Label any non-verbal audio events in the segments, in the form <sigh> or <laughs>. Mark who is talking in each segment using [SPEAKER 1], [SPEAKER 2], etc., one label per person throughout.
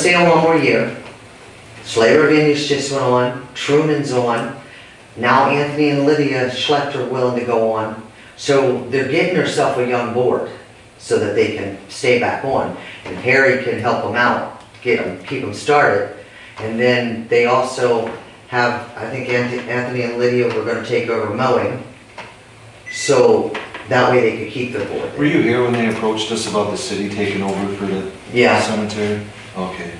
[SPEAKER 1] sale one more year. Slater Venues just went on, Truman's on, now Anthony and Lydia Schlechter willing to go on. So they're getting herself a young board so that they can stay back on. And Harry can help them out, get them, keep them started. And then they also have, I think Anth- Anthony and Lydia were gonna take over mowing. So that way they could keep their
[SPEAKER 2] Were
[SPEAKER 1] board.
[SPEAKER 2] you here when they approached us about the city taking over for the
[SPEAKER 1] Yeah.
[SPEAKER 2] cemetery? Okay.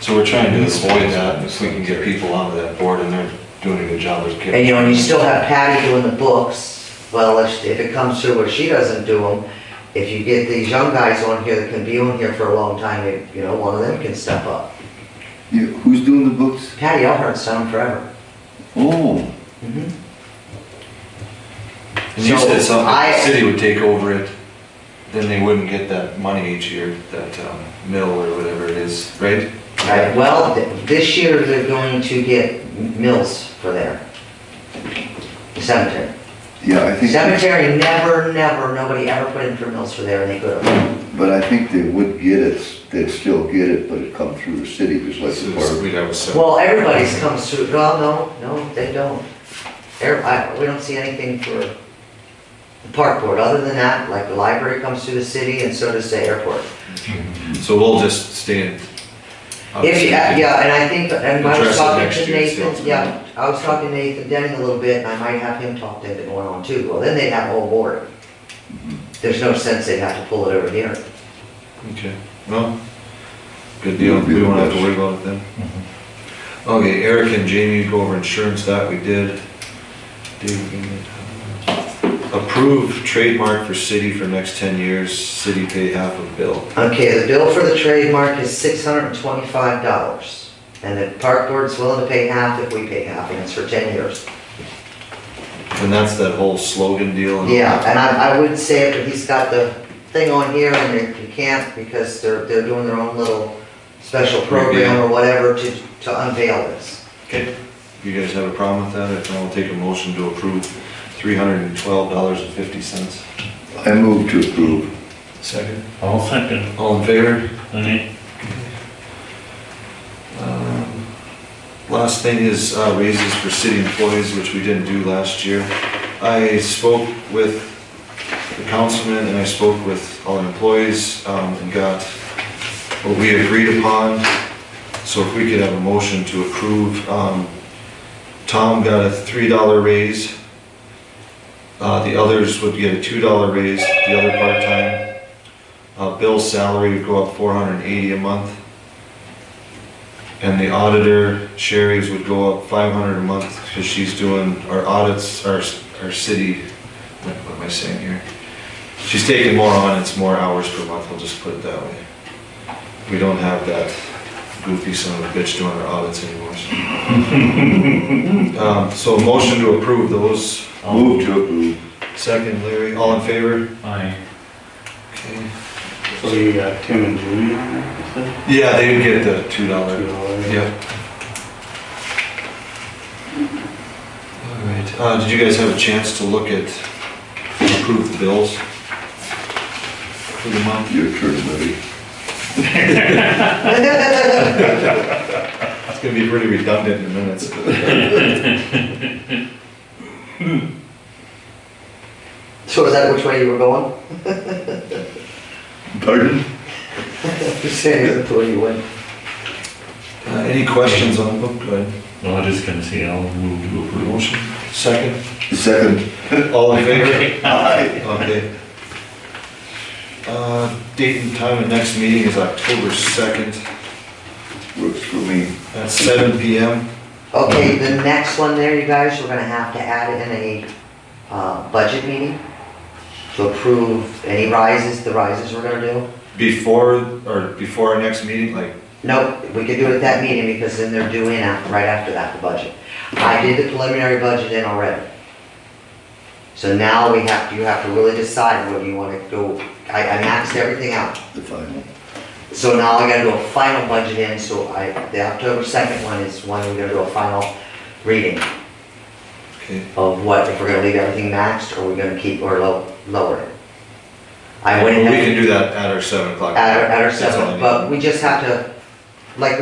[SPEAKER 2] So we're trying to avoid that, if we can get people onto that board, and they're doing a good job, they're.
[SPEAKER 1] And you know, and you still have Patty doing the books, well, if, if it comes through where she doesn't do them, if you get these young guys on here that can be on here for a long time, you- you know, one of them can step up.
[SPEAKER 3] Yeah, who's doing the books?
[SPEAKER 1] Patty Elhart's done 'em forever.
[SPEAKER 3] Oh,
[SPEAKER 2] And you said
[SPEAKER 1] So,
[SPEAKER 2] something, if
[SPEAKER 1] I-
[SPEAKER 2] the city would take over it, then they wouldn't get that money each year, that um, mill or whatever it is, right?
[SPEAKER 1] Right, well, th- this year they're going to get mills for there. Cemetery.
[SPEAKER 3] yeah, I think,
[SPEAKER 1] Cemetery never, never, nobody ever put in for mills for there and they could have.
[SPEAKER 3] but I think they would get it, they'd still get it, but it'd come through the city, just like the
[SPEAKER 2] So
[SPEAKER 3] park.
[SPEAKER 2] We'd have a separate.
[SPEAKER 1] Well, everybody's comes through, well, no, no, they don't. Every- I- we don't see anything for the park board, other than that, like the library comes through the city and so does the airport.
[SPEAKER 2] So we'll just stand.
[SPEAKER 1] If, you- uh, yeah, yeah, and I think, and I
[SPEAKER 2] Address
[SPEAKER 1] was
[SPEAKER 2] it
[SPEAKER 1] talking
[SPEAKER 2] next
[SPEAKER 1] to
[SPEAKER 2] year, see
[SPEAKER 1] Nathan,
[SPEAKER 2] what's going
[SPEAKER 1] yeah, I was talking to Nathan Denning a little bit, and I might have him talk to him going on too, well, then they'd have a whole board. There's no sense they'd have to pull it over here.
[SPEAKER 2] Okay, well, good deal, we won't have to worry about it then. Okay, Eric and Jamie go over insurance, that we did. Dave, you need- Approve trademark for city for next ten years, city pay half of bill.
[SPEAKER 1] Okay, the bill for the trademark is six hundred and twenty-five dollars, and the park board's willing to pay half if we pay half, and it's for ten years.
[SPEAKER 2] And that's that whole slogan deal. and-
[SPEAKER 1] Yeah, and I, I would say it, but he's got the thing on here and you- you can't because they're, they're doing their own little special program or whatever to, to unveil <laughs> this.
[SPEAKER 2] Okay, you guys have a problem with that? If not, I'll take a motion to approve three hundred and twelve dollars and fifty cents.
[SPEAKER 3] I move to approve.
[SPEAKER 2] Second.
[SPEAKER 4] I'll second,
[SPEAKER 2] All in favor?
[SPEAKER 4] any,
[SPEAKER 2] Um, Last thing is uh, raises for city employees, which we didn't do last year. I spoke with the councilman and I spoke with all the employees um, and got what we agreed upon. So if we could have a motion to approve, um, Tom got a three dollar raise. Uh, The others would get a two dollar raise, the other part-time. Uh, Bill's salary would go up four hundred and eighty a month. And the auditor, Sherry's would go up five hundred a month, because she's doing our audits, our, our city, what what am I saying here? She's taking more on, it's more hours per month, we'll just put it that way. We don't have that goofy son of a bitch doing our audits anymore. so. Um, so motion to approve those,
[SPEAKER 3] Move to approve.
[SPEAKER 2] second Larry, all in favor?
[SPEAKER 4] I,
[SPEAKER 2] Okay.
[SPEAKER 5] So you got Tim and Julie on there, you said?
[SPEAKER 2] Yeah, they would get the two dollar.
[SPEAKER 5] Two dollars.
[SPEAKER 2] Yep. All right, uh, did you guys have a chance to look at approved bills? For the month?
[SPEAKER 3] Your turn, buddy.
[SPEAKER 2] It's gonna be pretty redundant in minutes.
[SPEAKER 1] So is that which way you were going? <laughs>
[SPEAKER 3] Pardon?
[SPEAKER 1] Just saying, that's the way you went.
[SPEAKER 2] Uh, any questions on, oh, go ahead,
[SPEAKER 4] no, I just gonna say I'll move to approve.
[SPEAKER 2] motion, second,
[SPEAKER 3] Second.
[SPEAKER 2] all in favor? <laughs>
[SPEAKER 3] Aye.
[SPEAKER 2] Okay. Uh, date and time of next meeting is October second,
[SPEAKER 3] Works for me.
[SPEAKER 2] at seven P M.
[SPEAKER 1] Okay, the next one there, you guys, you're gonna have to add in a, uh, budget meeting to approve any rises, the rises we're gonna do.
[SPEAKER 2] Before, or before our next meeting, like,
[SPEAKER 1] Nope, we could do it at that meeting because then they're due in af- right after that, the budget. I did the preliminary budget in already. So now we have, you have to really decide whether you wanna go, I, I maxed everything out.
[SPEAKER 3] The final.
[SPEAKER 1] So now I gotta do a final budget in, so I, the October second one is when we're gonna do a final reading
[SPEAKER 2] okay,
[SPEAKER 1] of what, if we're gonna leave everything maxed or we're gonna keep or low, lower it. I went
[SPEAKER 2] Well,
[SPEAKER 1] and
[SPEAKER 2] We can do that at our seven o'clock.
[SPEAKER 1] at our, at our
[SPEAKER 2] That's all I
[SPEAKER 1] seven,
[SPEAKER 2] need.
[SPEAKER 1] but we just have to like